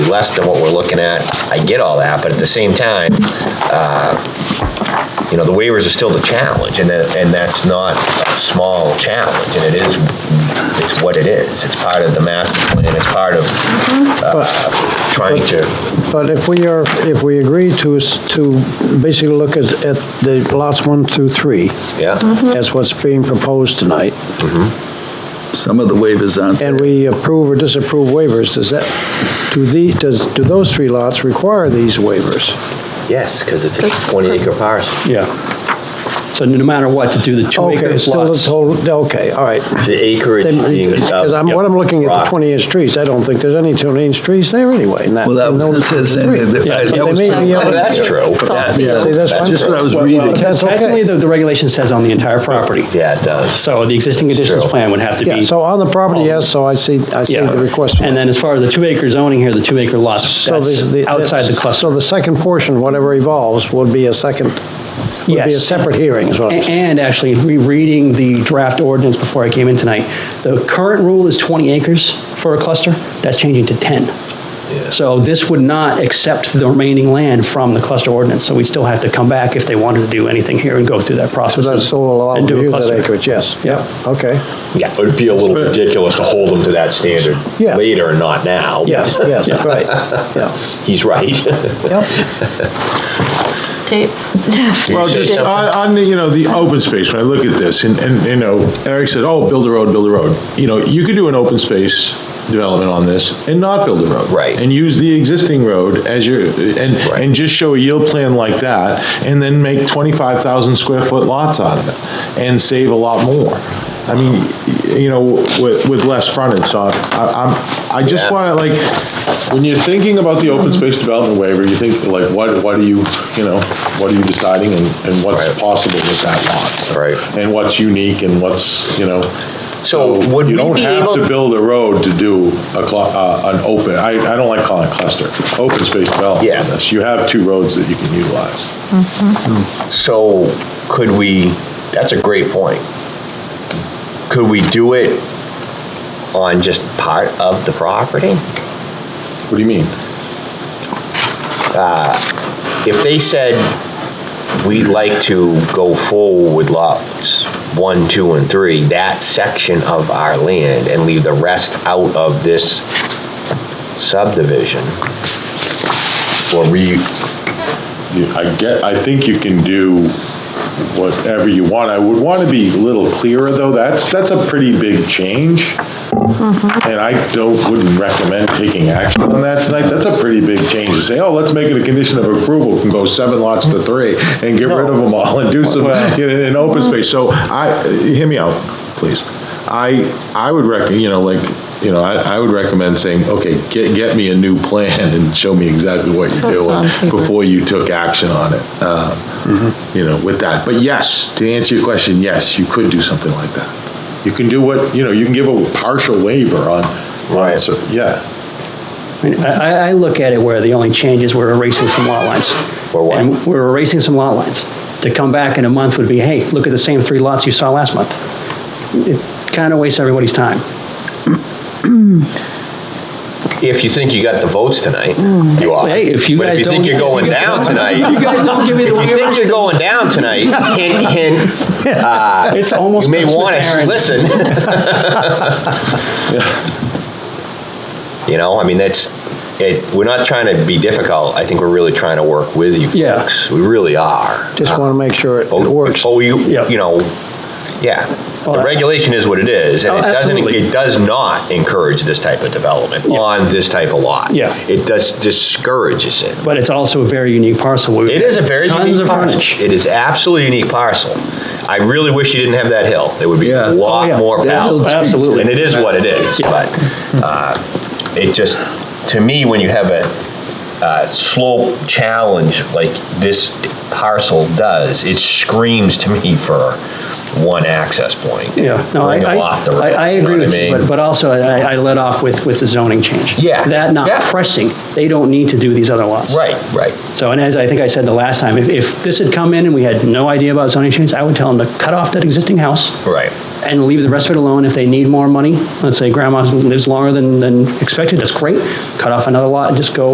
less than what we're looking at. I get all that, but at the same time, uh, you know, the waivers are still the challenge, and that, and that's not a small challenge, and it is, it's what it is. It's part of the master plan, it's part of uh, trying to, But if we are, if we agree to, s- to basically look at, at the lots one through three, yeah, as what's being proposed tonight, Some of the waivers aren't, and we approve or disapprove waivers, does that, do the, does, do those three lots require these waivers? yes, because it's a That's- 20-acre parcel. Yeah. So no matter what, to do the two Okay, acre still the lots. Uh, total, okay, all right. The acreage being... Because I'm, what I'm looking at, the 20-inch trees, I don't think there's any 20-inch trees there anyway. in well, that in was, those that's the same thing that- Yeah, I- but that they was may true. be Oh, that's true. Yeah. Yeah, See, that's that's just what I was fine. reading. But that's okay. Technically, the, the regulation says on the entire property. Yeah, it does. So the existing conditions true. plan would have to be. Yeah, so on the property, yes, so I see, I see Yeah. the request. And then as far as the two acre zoning here, the two acre lots, So that's there's the- outside the So cluster. the second portion, whatever evolves, would be a second, would be a Yes. separate hearing, is what I'm A- saying. And actually, rereading the draft ordinance before I came in tonight, the current rule is 20 acres for a cluster, that's changing to 10. So this would not accept the remaining land from the cluster ordinance, so we'd still have to come back if they wanted to do anything here and go through that So process. that's still and allowed do to a use that cluster. acreage, yes. Yeah. Okay, Yeah, it would be a little ridiculous to hold them to that standard Yeah. later and not now. yes, yes, Yeah. right, yeah. He's right. Yep, Tape. Well, just on, on the, you know, the open space, when I look at this, and, and, you know, Eric said, oh, build a road, build a road. You know, you could do an open space development on this and not build a road. Right. And use the existing road as your, and, Right. and just show a yield plan like that, and then make twenty-five thousand square foot lots out of it, and save a lot more. I mean, y- you know, with, with less frontage, so I, I'm, I just Yeah. wanna, like, when you're thinking about the open space development waiver, you think, like, what, what are you, you know, what are you deciding, and, and what's Right. possible with that lot? so- Right. And what's unique, and what's, you know, So so would we you don't be have able- to build a road to do a, cl- uh, an open, I, I don't like calling it cluster, open space development. Yeah. on this. You have two roads that you can utilize. So could we, that's a great point. Could we do it on just part of the property? What do you mean? If they said, we'd like to go forward with lots one, two, and three, that section of our land and leave the rest out of this subdivision. Or re, You- I get, I think you can do whatever you want. I would want to be a little clearer, though. That's, that's a pretty big change. Mm-hmm. And I don't, wouldn't recommend taking action on that tonight. That's a pretty big change to say, oh, let's make it a condition of approval, can go seven lots to three and get rid of them all and do some, in, in open space. So I, hear me out, please. I, I would rec, you know, like, you know, I, I would recommend saying, okay, get, get me a new plan and show me exactly what So you're it's on doing paper. before you took action on it. um, You know, with that. But yes, to answer your question, yes, you could do something like that. You can do what, you know, you can give a partial waiver on, on, Right. cer- yeah. I mean, I, I- I look at it where the only change is we're erasing some lot lines. We're what? And We're erasing some lot lines. To come back in a month would be, hey, look at the same three lots you saw last month. It kind of wastes everybody's time. if you think you got the votes tonight, you are. Hey, if you But if guys you think don't- you're going if you down guys- tonight, You guys don't give me the If you think you're going down tonight, hint, hint, It's almost you may Christmas, want to Aaron. listen. You know, I mean, that's, it, we're not trying to be difficult. I think we're really trying to work with you Yeah. folks. We really are. just want to make sure it it Oh, works. Oh, you, Yeah. you know, yeah. Oh, The I- regulation is what it is, and Oh, it doesn't, absolutely. it does not encourage this type of development Yeah. on this type of lot. Yeah. It does, discourages it. But it's also a very unique parcel. We've It got is a very tons unique of parcel. frontage. It is absolutely unique parcel. I really wish you didn't have that hill. There would be Yeah. a Oh, lot yeah. more That hill power. trees. Absolutely. And it is what it is, but uh, it just, to me, when you have a uh, slope challenge like this parcel does, it screams to me for one access point. Yeah, no, I, Bring I, them off the road, I I agree know with what I you, mean? but, but also I, I let off with, with the zoning change. Yeah, That yeah. not pressing, they don't need to do these other lots. Right, right. So, and as I think I said the last time, if, if this had come in and we had no idea about zoning change, I would tell them to cut off that existing house Right. and leave the rest of it alone. If they need more money, let's say grandma lives longer than, than expected, that's great. Cut off another lot and just go